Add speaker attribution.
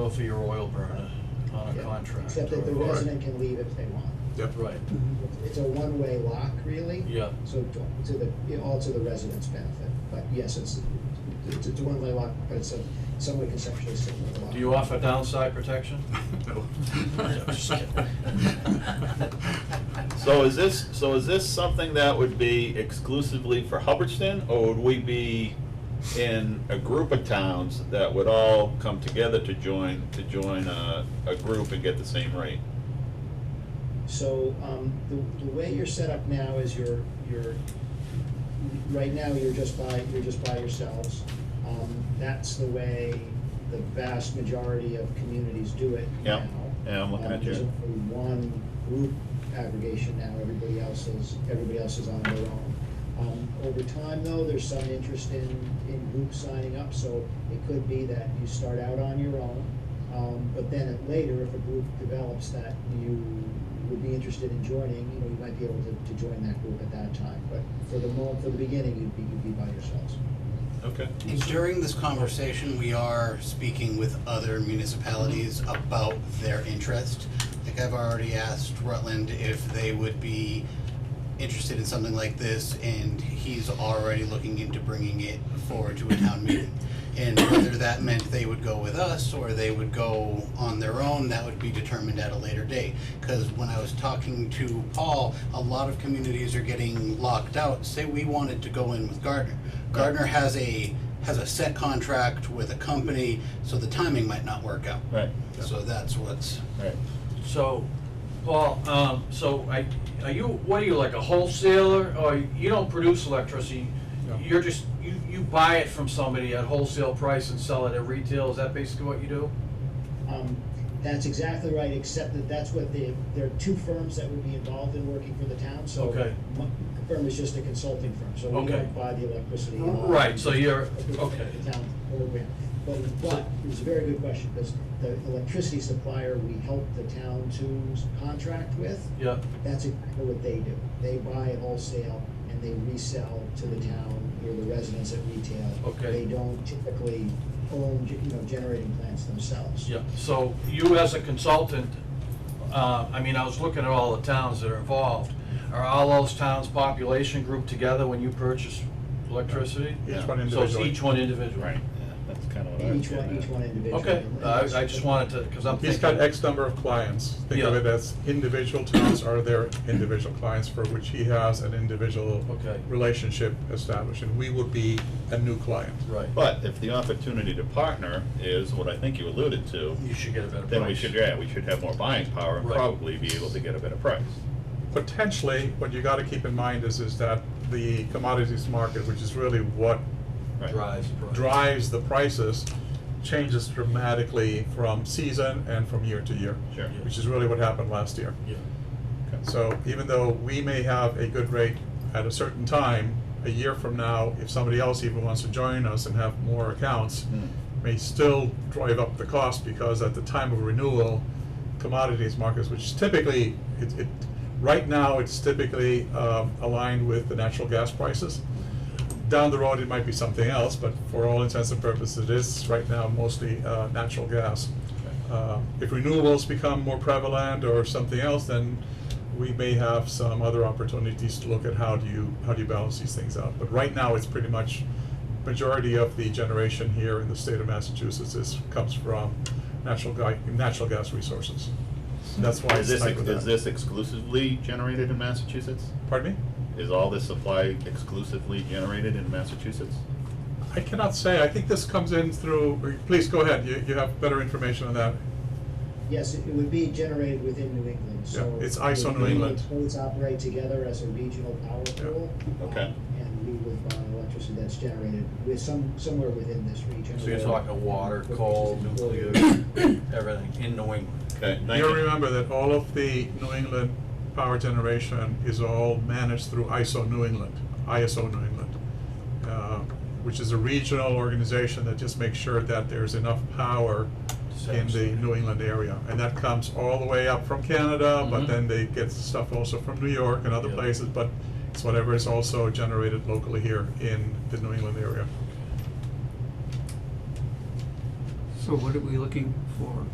Speaker 1: bill for your oil burner on a
Speaker 2: Yeah,
Speaker 1: contract.
Speaker 2: Except that the
Speaker 1: or-
Speaker 2: resident can leave if they want.
Speaker 3: Yep.
Speaker 1: Right,
Speaker 2: It's a one-way lock, really.
Speaker 1: Yeah.
Speaker 2: So to to the, you know, all to the resident's benefit, but yes, it's, it's it's a one-way lock, but it's a, some way conceptually similar lock.
Speaker 1: do you offer downside protection?
Speaker 3: No.
Speaker 4: So is this, so is this something that would be exclusively for Hubbardston, or would we be in a group of towns that would all come together to join, to join a, a group and get the same rate?
Speaker 2: So, um, the, the way you're set up now is you're, you're, right now, you're just by, you're just by yourselves. Um, that's the way the vast majority of communities do it
Speaker 4: Yeah,
Speaker 2: now.
Speaker 4: yeah, I'm looking
Speaker 2: Um,
Speaker 4: at you.
Speaker 2: There's only one group aggregation now, everybody else is, everybody else is on their own. Um, over time, though, there's some interest in, in groups signing up, so it could be that you start out on your own, um, but then at later, if a group develops that you would be interested in joining, you know, you might be able to, to join that group at that time, but for the mo, for the beginning, you'd be, you'd be by yourselves.
Speaker 4: Okay.
Speaker 5: And during this conversation, we are speaking with other municipalities about their interest. Like I've already asked Rutland if they would be interested in something like this, and he's already looking into bringing it forward to a town meeting. And whether that meant they would go with us or they would go on their own, that would be determined at a later date. Because when I was talking to Paul, a lot of communities are getting locked out. Say we wanted to go in with Gardner. Gardner has a, has a set contract with a company, so the timing might not work out.
Speaker 4: Right,
Speaker 5: So that's what's,
Speaker 4: right.
Speaker 1: So, Paul, um, so I, are you, what are you, like a wholesaler, or you don't produce electricity?
Speaker 3: No.
Speaker 1: You're just, you, you buy it from somebody at wholesale price and sell it at retail, is that basically what you do?
Speaker 2: Um, that's exactly right, except that that's what the, there are two firms that would be involved in working for the town, so.
Speaker 1: Okay.
Speaker 2: one firm is just a consulting firm, so we
Speaker 1: Okay.
Speaker 2: don't buy the electricity. and all that.
Speaker 1: Right, so you're,
Speaker 2: The-
Speaker 1: okay,
Speaker 2: The town program. But, but, it's a very good question, because the electricity supplier we help the town to contract with,
Speaker 1: yeah,
Speaker 2: that's exactly what they do. They buy at wholesale and they resell to the town or the residents at retail.
Speaker 1: Okay.
Speaker 2: They don't typically own, you know, generating plants themselves.
Speaker 1: yeah. So you as a consultant, uh, I mean, I was looking at all the towns that are involved. Are all those towns' population grouped together when you purchase electricity?
Speaker 3: Each one
Speaker 1: So it's
Speaker 3: individually.
Speaker 1: each one individual?
Speaker 4: Yeah, that's kind of what I was
Speaker 2: Each
Speaker 4: getting
Speaker 2: one,
Speaker 4: at.
Speaker 2: each one individually.
Speaker 1: Okay, Uh, I, I just wanted to, because I'm thinking.
Speaker 3: He's got X number of clients. Think of
Speaker 1: Yeah.
Speaker 3: it as individual towns are their individual clients for which he has an individual
Speaker 1: Okay.
Speaker 3: relationship established, and we would be a new client.
Speaker 1: Right.
Speaker 4: But if the opportunity to partner is what I think you alluded to,
Speaker 1: You should get a better price.
Speaker 4: then we should, yeah, we should have more buying power and
Speaker 1: Right.
Speaker 4: probably be able to get a better price.
Speaker 3: Potentially, what you gotta keep in mind is, is that the commodities market, which is really what
Speaker 4: Right.
Speaker 1: Drives the price.
Speaker 3: drives the prices changes dramatically from season and from year to year.
Speaker 4: Sure.
Speaker 3: Which is really what happened last year.
Speaker 1: Yeah,
Speaker 3: So even though we may have a good rate at a certain time, a year from now, if somebody else even wants to join us and have more accounts,
Speaker 4: Hmm.
Speaker 3: may still drive up the cost because at the time of renewal, commodities markets, which is typically, it, it, right now, it's typically, um, aligned with the natural gas prices. Down the road, it might be something else, but for all intents and purposes, it is right now mostly, uh, natural gas. Uh, If renewables become more prevalent or something else, then we may have some other opportunities to look at how do you, how do you balance these things out. But right now, it's pretty much, majority of the generation here in the state of Massachusetts is, comes from natural guy, natural gas resources. That's why
Speaker 4: Is
Speaker 3: it's
Speaker 4: this,
Speaker 3: stuck with
Speaker 4: is
Speaker 3: that.
Speaker 4: this exclusively generated in Massachusetts?
Speaker 3: Pardon me?
Speaker 4: Is all this supply exclusively generated in Massachusetts?
Speaker 3: I cannot say, I think this comes in through, please go ahead, you, you have better information on that.
Speaker 2: Yes, it it would be generated within New England, so.
Speaker 3: Yeah, it's ISO New
Speaker 2: the
Speaker 3: England.
Speaker 2: States operate together as a regional power
Speaker 3: Yeah.
Speaker 2: pool. um,
Speaker 4: Okay.
Speaker 2: And we would buy electricity that's generated with some, somewhere within this region.
Speaker 1: so you're
Speaker 2: or-
Speaker 1: talking water, coal, nuclear, everything in New England.
Speaker 4: Okay, thank
Speaker 3: You remember that all of the New England power generation is all managed through ISO New England, ISO New England, uh, which is a regional organization that just makes sure that there's enough power in the New England area. And that comes all the way up from Canada,
Speaker 1: Mhm.
Speaker 3: but then they get stuff also from New York and other
Speaker 1: Yeah.
Speaker 3: places, but it's whatever is also generated locally here in the New England area.
Speaker 6: So what are we looking forward.